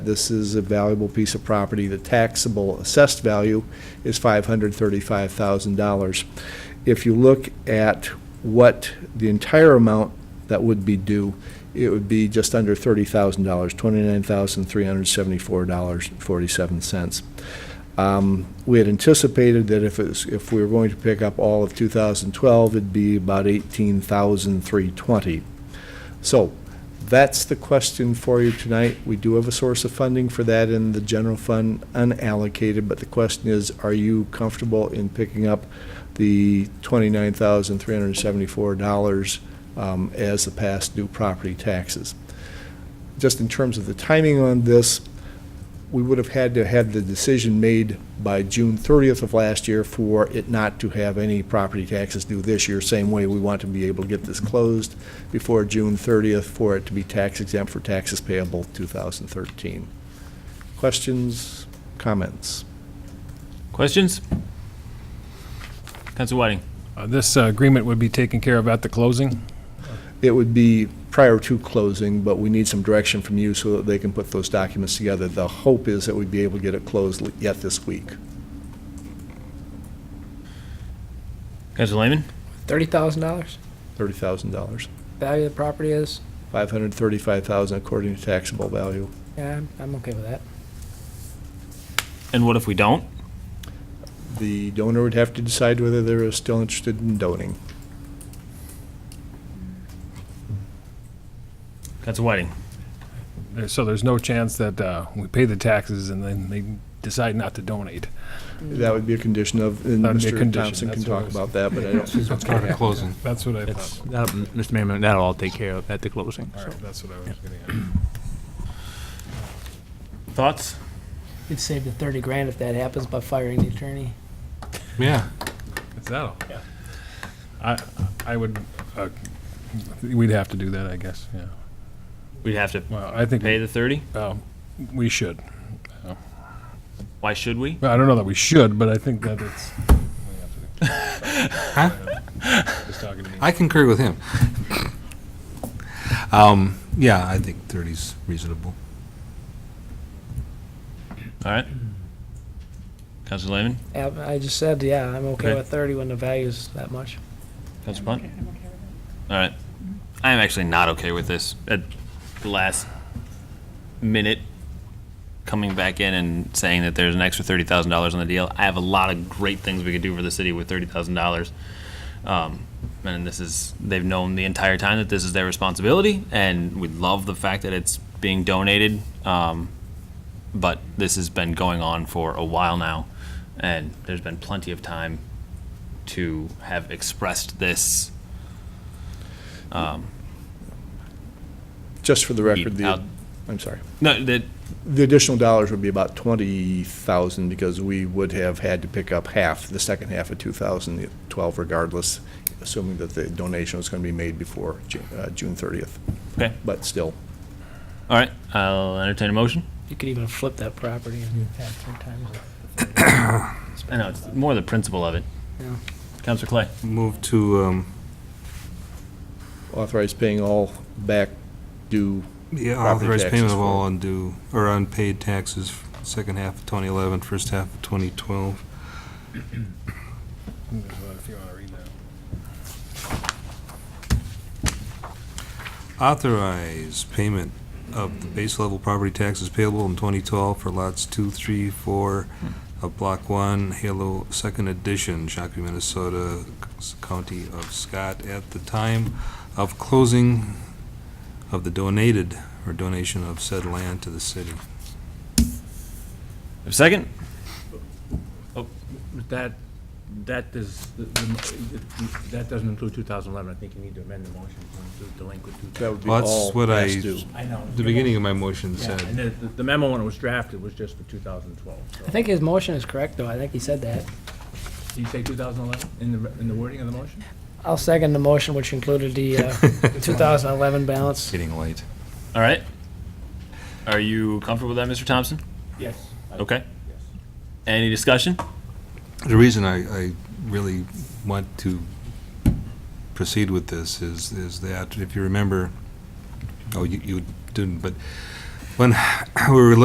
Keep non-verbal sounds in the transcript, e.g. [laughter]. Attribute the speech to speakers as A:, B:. A: This is a valuable piece of property. The taxable assessed value is $535,000. If you look at what the entire amount that would be due, it would be just under $30,000, $29,374.47. Um, We had anticipated that if it was, if we were going to pick up all of 2012, it'd be about 18,320. So that's the question for you tonight. We do have a source of funding for that in the general fund unallocated, but the question is, are you comfortable in picking up the $29,374 um, as the past due property taxes? Just in terms of the timing on this, we would have had to have the decision made by June 30th of last year for it not to have any property taxes due this year, same way we want to be able to get this closed before June 30th for it to be tax exempt for taxes payable 2013. Questions, comments?
B: Questions? Council Whiting?
C: Uh, This uh, agreement would be taken care of at the closing?
A: It would be prior to closing, but we need some direction from you so that they can put those documents together. The hope is that we'd be able to get it closed yet this week.
B: Council Lehman?
D: Thirty thousand dollars
A: $30,000.
D: value of the property is.
A: 535,000 according to taxable value.
D: Yeah, I'm, I'm okay with that.
B: And what if we don't?
A: The donor would have to decide whether they're still interested in donating.
B: Council Whiting?
C: There- uh, So there's no chance that uh, we pay the taxes and then they decide not to donate?
A: That would be a condition of, and
C: That'd Mm-hmm. be a
A: Mr.
C: condition,
A: Thompson can
C: that's what I
A: talk
C: was-
A: about that, but I don't,
C: [laughs] Okay.
E: closing.
C: That's what I
E: That's,
C: thought.
E: that- Uh, Mr. Mayor, that'll all take care of at the closing.
C: All
E: so.
C: right, that's what I was getting at.
B: Thoughts?
D: We'd save the thirty grand if that happens by firing the attorney.
E: Yeah.
C: Is that all? I, I would, uh, we'd have to do that, I guess, yeah.
B: We'd have to
C: Well, I think
B: pay the 30?
C: uh, we should.
B: Why should we?
C: Well, I don't know that we should, but I think that it's. we have to do- Just talking to me.
E: I concur with him. [coughs] Um, Yeah, I think 30's reasonable.
B: All right. Council Lehman?
D: Yeah, I just said, yeah, I'm okay
B: Okay.
D: with thirty when the value's that much.
B: Council Punt? All right. I am actually not okay with this at the last minute coming back in and saying that there's an extra $30,000 on the deal. I have a lot of great things we could do for the city with $30,000. Um, and this is, they've known the entire time that this is their responsibility, and we love the fact that it's being donated. Um, but this has been going on for a while now, and there's been plenty of time to have expressed this.
A: just for the record,
B: Out.
A: the, I'm sorry.
B: No, that
A: The additional dollars would be about 20,000 because we would have had to pick up half, the second half of 2012 regardless, assuming that the donation was going to be made before Ju- uh, June 30th.
B: okay.
A: But still,
B: All right, I'll entertain a motion.
D: You could even flip that property and have three times. it.
B: I know it's more the principle of it.
D: Yeah.
B: Councilor Clay.
E: Move to, um,
A: authorize paying all back due,
E: yeah,
A: Property
E: authorize payment
A: taxes
E: of all undue, or unpaid taxes, second half of 2011, first half of 2012.
C: If you want to read that.
E: Authorize payment of the base level property taxes payable in 2012 for lots 2, 3, 4 of Block 1, Halo Second Edition, Shakopee, Minnesota, County of Scott, at the time of closing of the donated or donation of said land to the city.
B: Have a second?
F: That, that is, the- the- that doesn't include 2011, I think you need to amend the motion to include delinquent
A: that
F: 2000.
A: would be
E: Well,
A: all
E: that's
A: past due.
E: what I-
F: I know.
E: The beginning of my motion
F: Yeah, and
E: said,
F: the- the- the memo when it was drafted was just for 2012, so.
D: I think his motion is correct, though. I think he said that.
F: Did you say 2011 in the, in the wording of the motion?
D: I'll second the motion, which included the, uh, two thousand eleven balance.
E: getting late.
B: All right. Are you comfortable with that, Mr. Thompson?
F: Yes.
B: Okay. Any discussion?
E: The reason I, I really want to proceed with this is, is that, if you remember, oh, you, you didn't, but when [sighs] we were